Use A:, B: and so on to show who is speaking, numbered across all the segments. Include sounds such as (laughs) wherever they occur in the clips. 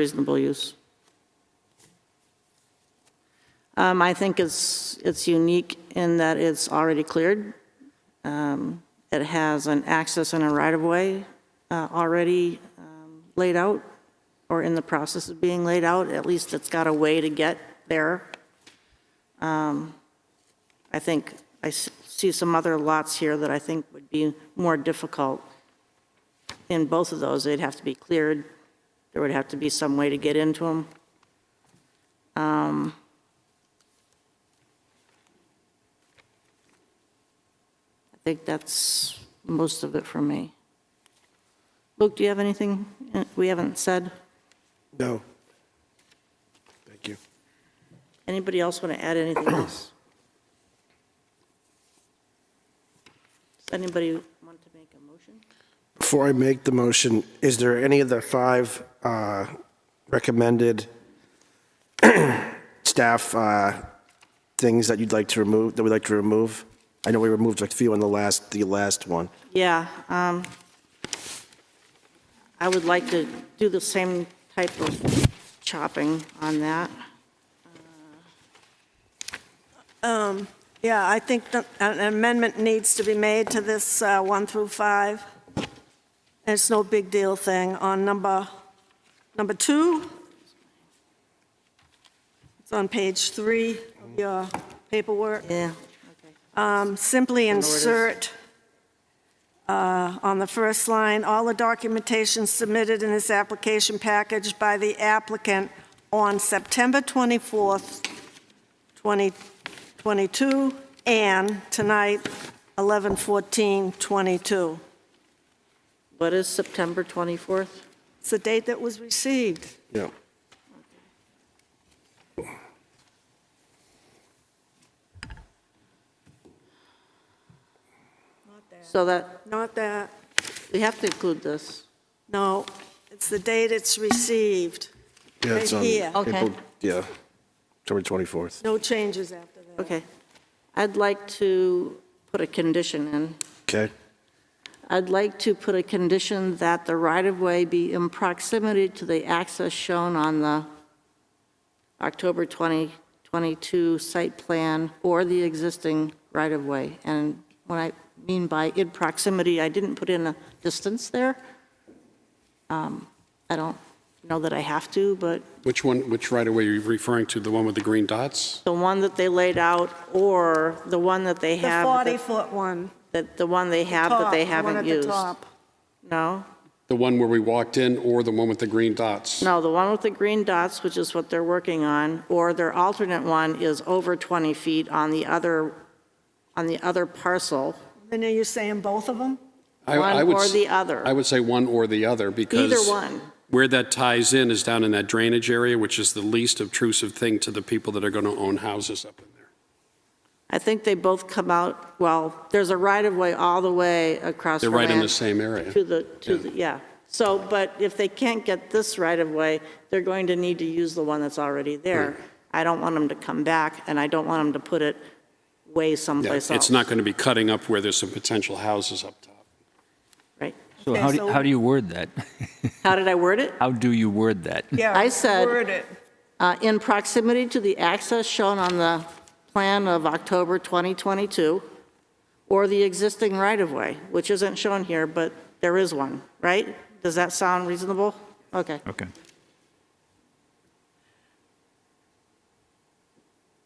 A: reasonable use. Um, I think it's, it's unique in that it's already cleared. Um, It has an access and a right-of-way uh, already um, laid out, or in the process of being laid out, at least it's got a way to get there. Um, I think, I s- see some other lots here that I think would be more difficult. In both of those, they'd have to be cleared, there would have to be some way to get into Um, them. I think that's most of it for me. Luke, do you have anything uh, we haven't said?
B: No. Thank you.
A: Anybody else want to add anything else? Does anybody want to make a motion?
B: Before I make the motion, is there any of the five uh, recommended (clears throat) staff uh, things that you'd like to remove, that we'd like to remove? I know we removed a few on the last, the last one.
A: Yeah, um, I would like to do the same type of chopping on that.
C: Yeah, I think that an amendment needs to be made to this uh, one through five. And It's no big deal thing on number, number two. It's on page three of your paperwork.
A: Yeah.
C: Um, Simply
A: it is.
C: insert uh, on the first line, all the documentation submitted in this application package by the applicant on September 24th, 2022, and tonight, 11/14/22.
A: What is September 24th?
C: It's the date that was received.
B: Yeah.
A: So that,
C: Not that,
A: we have to include this.
C: no, it's the date it's received.
B: Yeah, it's
C: Right
B: on
C: here.
A: Okay.
B: April- Yeah, October 24th.
C: No changes after that.
A: Okay. I'd like to put a condition in.
B: Okay,
A: I'd like to put a condition that the right-of-way be in proximity to the access shown on the October 2022 site plan or the existing right-of-way. And what I mean by in proximity, I didn't put in a distance there. Um, I don't know that I have to, but
D: Which one, which right-of-way are you referring to? The one with the green dots?
A: the one that they laid out or the one that they
C: The
A: have. that-
C: 40-foot one,
A: that the one they have that
C: top,
A: they
C: the one
A: haven't
C: at the
A: used.
C: top.
A: No,
D: The one where we walked in or the one with the green dots?
A: no, the one with the green dots, which is what they're working on, or their alternate one is over 20 feet on the other, on the other parcel,
C: And are you saying both of them?
D: I- I
A: one
D: would
A: or
D: s-
A: the other.
D: I would say one or the other because.
A: either one.
D: Where that ties in is down in that drainage area, which is the least obtrusive thing to the people that are going to own houses up in there.
A: I think they both come out, well, there's a right-of-way all the way across
D: They're
A: from
D: right in the
A: that
D: same area.
A: To the, to the, yeah. So, but if they can't get this right-of-way, they're going to need to use the one that's already there. I don't want them to come back, and I don't want them to put it way
D: Yeah,
A: someplace else.
D: It's not going to be cutting up where there's some potential houses up top.
A: Right.
E: So
C: Okay,
E: how do,
C: so-
E: how do you word that? (laughs)
A: How did I word it?
E: How do you word that?
C: Yeah.
A: I said-
C: Word it.
A: Uh, In proximity to the access shown on the plan of October 2022, or the existing right-of-way, which isn't shown here, but there is one, right? Does that sound reasonable? Okay.
E: Okay.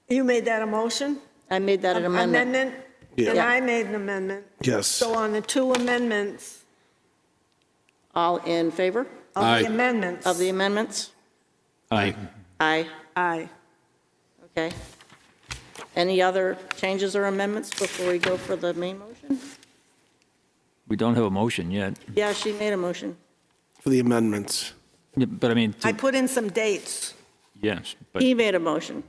C: You made that a motion?
A: I made that an amendment.
C: And
A: Yeah.
C: I made an amendment.
B: yes.
C: So on the two amendments,
A: All in favor
C: of
D: Aye.
C: the amendments.
A: of the amendments?
E: Aye.
A: Aye.
C: Aye.
A: Okay. Any other changes or amendments before we go for the main motion?
E: We don't have a motion yet,
A: Yeah, she made a motion.
B: For the amendments.
E: Yeah, but I mean, to-
C: I put in some dates.
E: yes, but
A: He made a motion.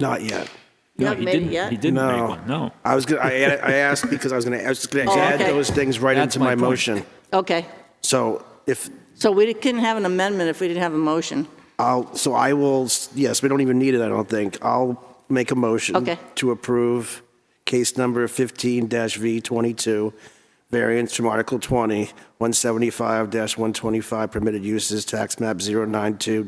B: Not yet.
A: You
E: no,
A: haven't
E: he
A: made it
E: didn't,
A: yet?
E: he didn't
B: No.
E: make one, no.
B: I was gonna, I, add- I asked because I was gonna, I was just gonna
A: Oh,
B: add
A: okay.
B: those things right
E: That's
B: into
E: my
B: my
E: point.
B: motion.
A: Okay.
B: So if,
A: So we couldn't have an amendment if we didn't have a motion.
B: I'll, so I will, s- yes, we don't even need it, I don't think. I'll make a motion
A: Okay.
B: to approve case number 15-V22, variance from Article 20, 175-125 permitted uses, tax map 092